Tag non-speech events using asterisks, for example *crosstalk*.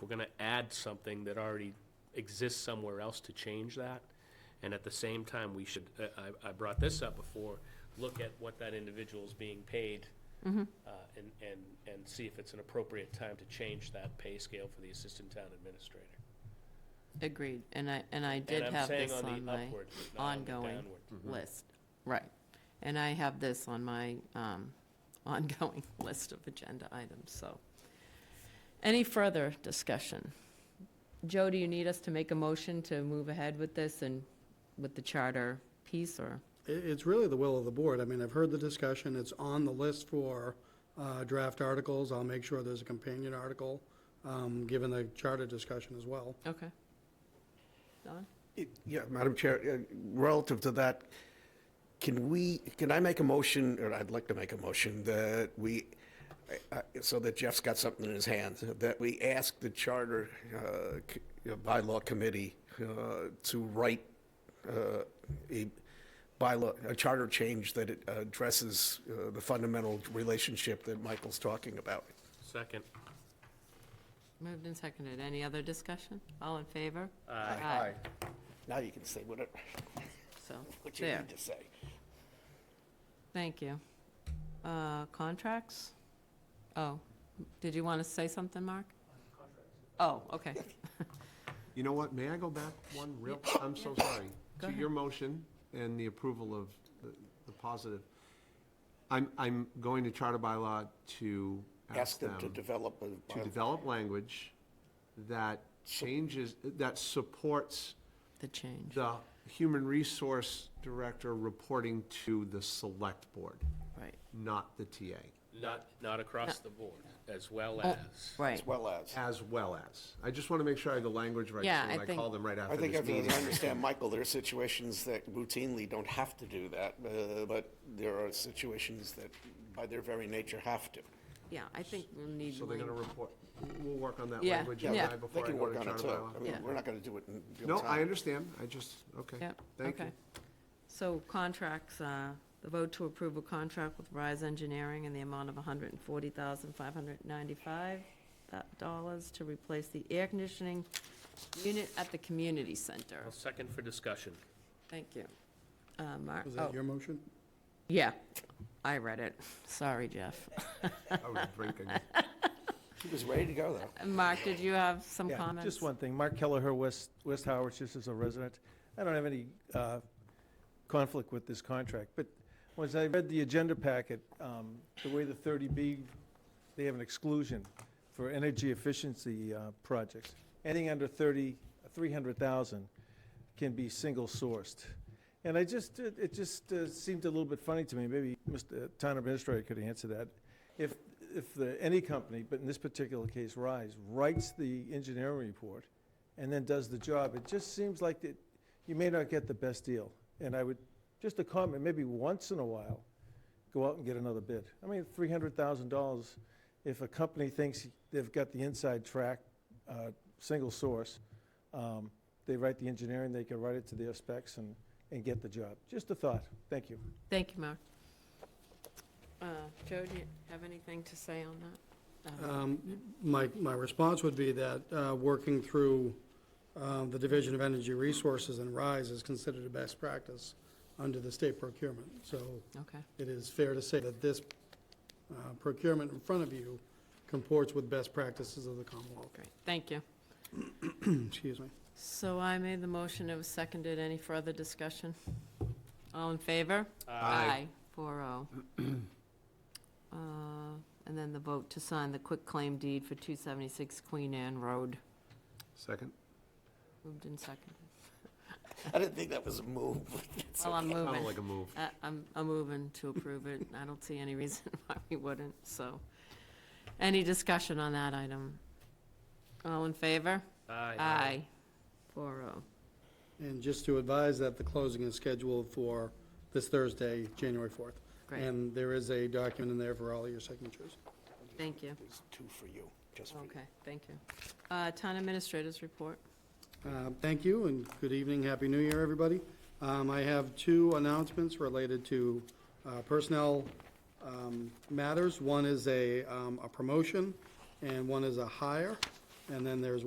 we're gonna add something that already exists somewhere else to change that. And at the same time, we should, uh, I, I brought this up before, look at what that individual is being paid Mm-hmm. uh, and, and, and see if it's an appropriate time to change that pay scale for the assistant town administrator. Agreed, and I, and I did And I'm have saying this on the my upward, but not on the ongoing downward. list, right. And I have this on my um, *laughs* ongoing *laughs* list of agenda items, so. Any further discussion? Joe, do you need us to make a motion to move ahead with this and with the charter piece, or? It, it's really the will of the board. I mean, I've heard the discussion, it's on the list for, uh, draft articles. I'll make sure there's a companion article, um, given the charter discussion as well. Okay. Don? It- Yeah, Madam Chair, uh, relative to that, can we, can I make a motion, or I'd like to make a motion, that we, I- I- so that Jeff's got something in his hands, that we ask the Charter uh, c- you know, Bylaw Committee uh, to write uh, a bylaw, a charter change that it addresses uh, the fundamental relationship that Michael's talking about. Second. Moved and seconded. Any other discussion? All in favor? Uh, Now you can say whatever, So, what you there, need to say. thank you. Uh, Contracts? Oh, did you want to say something, Mark? Oh, okay. You know what, may I go back one real, I'm so sorry, Go to your motion and the approval of the, the positive. I'm, I'm going to charter bylaw to Ask them to develop a. to develop language that changes, that supports *laughs* The change, the human resource director reporting to the select board, right. not the TA, Not, not across the board, as well Oh, as. Right. As well as. as well as. I just want to make sure I have the language right, Yeah, so when I I think- call them right I after think this everyone meeting. *laughs* understand, Michael, there are situations that routinely don't have to do that, uh, but there are situations that by their very nature have to. Yeah, I think we'll need. So they're going to report, we'll work on that Yeah, language, you yeah. and I, They They before I can go to work on it charter too. bylaw. I mean, Yeah. We're not going to do it in real No, I time. understand, I just, okay. Yep, Thank you. okay. So contracts, uh, the vote to approve a contract with Rise Engineering in the amount of $140,595 dollars to replace the air conditioning unit at the community center. I'll Second for discussion. Thank you. Uh, Mark, Was oh, that your motion? yeah, I read it. Sorry, Jeff. I was drinking. He was ready to go, *laughs* though. *laughs* Mark, did you have some Yeah, comments? Just one thing. Mark Kelleher, West, West Howard, just as a resident. I don't have any uh, conflict with this contract, but once I read the agenda packet, um, the way the 30B, they have an exclusion for energy efficiency uh, projects. Anything under 30, 300,000 can be single-sourced. And I just, it it just uh, seemed a little bit funny to me, maybe Mr. Town Administrator could answer that. If, if the, any company, but in this particular case, Rise, writes the engineering report and then does the job, it just seems like that you may not get the best deal. And I would, just a comment, maybe once in a while, go out and get another bid. I mean, three hundred thousand dollars, if a company thinks they've got the inside track, uh, single source, um, they write the engineering, they can write it to their specs and, and get the job. Just a thought. Thank you. Thank you, Mark. Uh, Joe, do you have anything to say on that? Uh, Um, My, my response would be that uh, working through um, the Division of Energy Resources and RISE is considered a best practice under the state procurement. So Okay, it is fair to say that this uh, procurement in front of you comports with best practices of the Commonwealth. great, thank you. Excuse me. So I made the motion, it was seconded, any further discussion? All in favor? Aye. Four oh. *clears throat* Uh, And then the vote to sign the quick claim deed for 276 Queen Anne Road, Second? moved and seconded. I didn't think that was a move. It's Well, I'm okay. Sounded moving. like a move. I- I'm, I'm moving to approve it. I don't see any reason *laughs* why we wouldn't, so. Any discussion on that item? All in favor? Aye. Four oh. And just to advise that the closing is scheduled for this Thursday, January 4th. Great, And there is a document in there for all your signatures. thank you. There's two for you, just for you. Okay, thank you. Uh, Town administrators report. Uh, Thank you, and good evening, Happy New Year, everybody. Um, I have two announcements related to uh, personnel um, matters. One is a um, a promotion, and one is a hire. And then there's